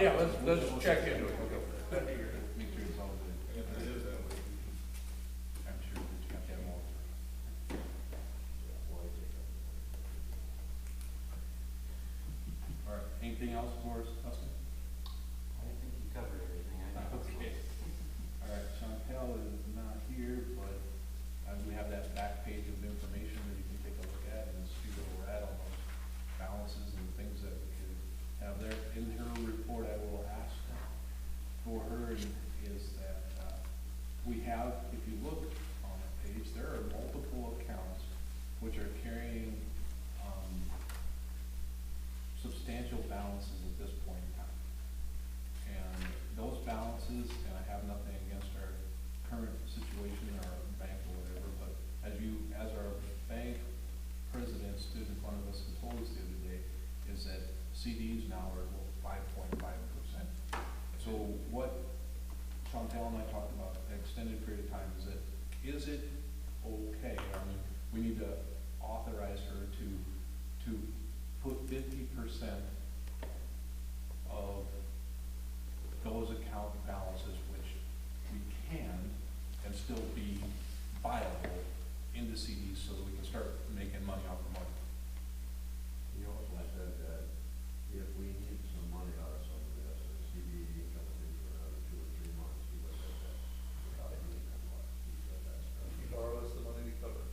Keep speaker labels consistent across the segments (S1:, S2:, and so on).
S1: let's check into it.
S2: Make sure it's all good. I'm sure that you have to have all. All right, anything else for us, Dustin?
S3: I think you covered everything I know.
S2: Okay. All right, Chantel is not here, but uh, we have that back page of information that you can take a look at and see where we're at on those balances and things that we can have there. In her report, I will ask for her is that uh, we have, if you look on the page, there are multiple accounts which are carrying um, substantial balances at this point in time. And those balances, and I have nothing against our current situation, or our bank or whatever, but as you, as our bank president stood in front of us and told us the other day, is that CDs now are five point five percent. So what Chantel and I talked about an extended period of time is that, is it okay? I mean, we need to authorize her to, to put fifty percent of those account balances which we can and still be viable into CDs so that we can start making money off the money.
S4: He also said that if we need some money out of some of this, the E CD comes in for another two or three months, he would have that without any income. He said that's.
S1: You borrow us the money to cover. it.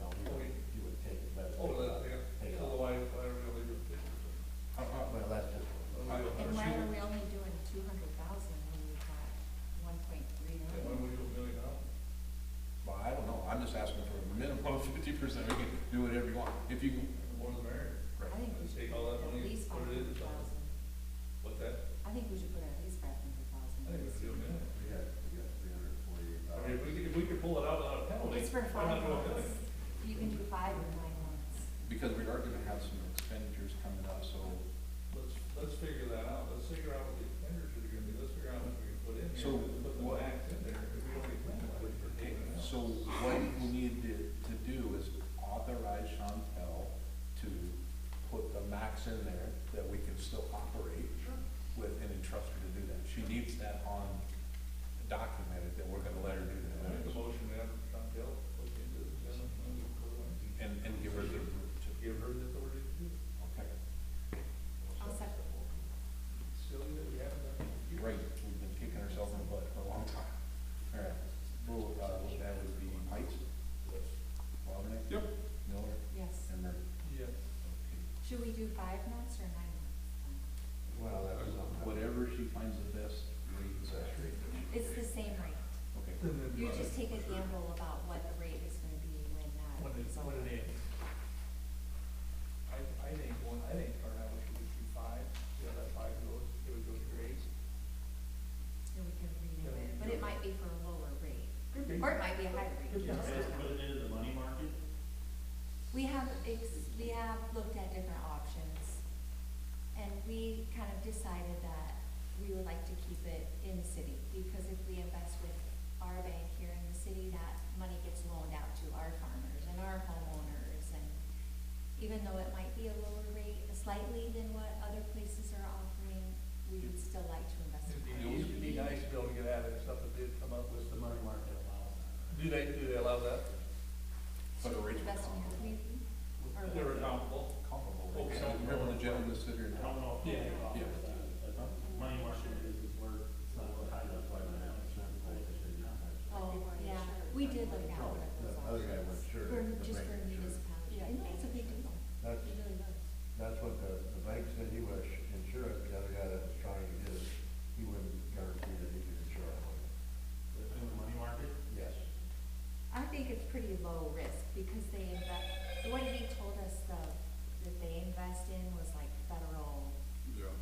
S4: No, he would, he would take it, but.
S1: Oh, that,
S4: Take
S1: yeah,
S4: it off.
S1: otherwise, I really don't.
S2: Uh, uh,
S4: Well, that's just.
S1: I
S5: And why are we only doing two hundred thousand when we've got one point three
S1: And when
S5: million?
S1: we do a million dollars.
S2: Well, I don't know, I'm just asking for a minimum of fifty percent, we can do whatever you want, if you,
S1: More the merrier.
S2: right.
S5: I think we
S1: Let's
S5: should
S1: take all that
S5: put at
S1: money,
S5: least
S1: put
S5: five
S1: it
S5: hundred
S1: in the fund.
S5: thousand.
S1: What's that?
S5: I think we should put at least five hundred thousand.
S1: I think we do a million.
S4: We had, we got three hundred and forty-eight
S1: I mean,
S4: thousand.
S1: if we could, if we could pull it out without a penalty.
S5: It's for
S1: why
S5: five
S1: not do a million?
S5: months. You can do five in nine months.
S2: Because we are gonna have some expenditures coming up, so,
S1: Let's, let's figure that out, let's figure out what the expenditures are gonna be, let's figure out what we can put in here,
S2: So
S1: put the
S2: what-
S1: max in there, if we don't get that, we're
S2: okay,
S1: taking it out.
S2: so what we need to, to do is authorize Chantel to put the max in there that we can still operate with and entrust her to do that. She needs that on, documented that we're gonna let her do
S1: I make a
S2: that.
S1: motion, we have Chantel, look into the general fund, and put it in.
S2: And, and give her the, to-
S1: give her the authority to do it.
S2: okay,
S5: I'll second.
S1: Silly that we haven't done it.
S2: right, we've been kicking ourselves in the butt for a long time. All right, rule, uh, that would be Heights, Wabanek?
S1: Yep.
S2: Miller,
S5: Yes.
S2: and Murray.
S1: Yes.
S5: Should we do five months or nine months?
S4: Well, that was on.
S2: Whatever she finds the best rate is that rate.
S5: It's the same rate.
S2: Okay,
S5: You just take a gamble about what the rate is gonna be when
S1: What
S5: that
S1: it,
S5: is over.
S1: what it is. I, I think, one, I think our average should be two five, the other five goes, it would go to grades.
S5: And we can renew it, but it might be for a lower rate,
S1: Could be.
S5: or it might be a higher rate.
S1: Could be.
S5: You just
S6: Guys,
S5: don't know.
S6: put it into the money market,
S5: We have, ex- we have looked at different options, and we kind of decided that we would like to keep it in the city, because if we invest with our bank here in the city, that money gets loaned out to our farmers and our homeowners, and even though it might be a lower rate slightly than what other places are offering, we would still like to invest in
S1: It'd be,
S5: our
S1: nice- it'd be nice to be able to get at it, if something did come up with
S6: what's the
S1: some,
S6: money market allows?
S1: do they, do they allow that?
S2: But the rates were
S5: invest in your community. Or-
S1: They're accountable.
S2: comparable.
S1: Oh,
S2: rates.
S1: so-
S2: Remember when the gentleman stood here
S6: I
S2: and
S6: don't know if they
S1: Yeah.
S6: allow
S2: Yeah.
S6: that, but money market is where it's not tied up by the
S5: Oh, yeah, we did look at what it was.
S4: The other guy went, sure,
S5: For,
S4: the
S5: just for
S4: bank, sure.
S5: municipality, and that's a big deal, it
S4: That's,
S5: really was.
S4: that's what the, the bank said he was insurance, the other guy that was trying to get it, he wouldn't guarantee that he could insure it.
S6: In the money market,
S4: Yes.
S5: I think it's pretty low risk because they invest, what he told us the, that they invest in was like federal
S2: Yeah.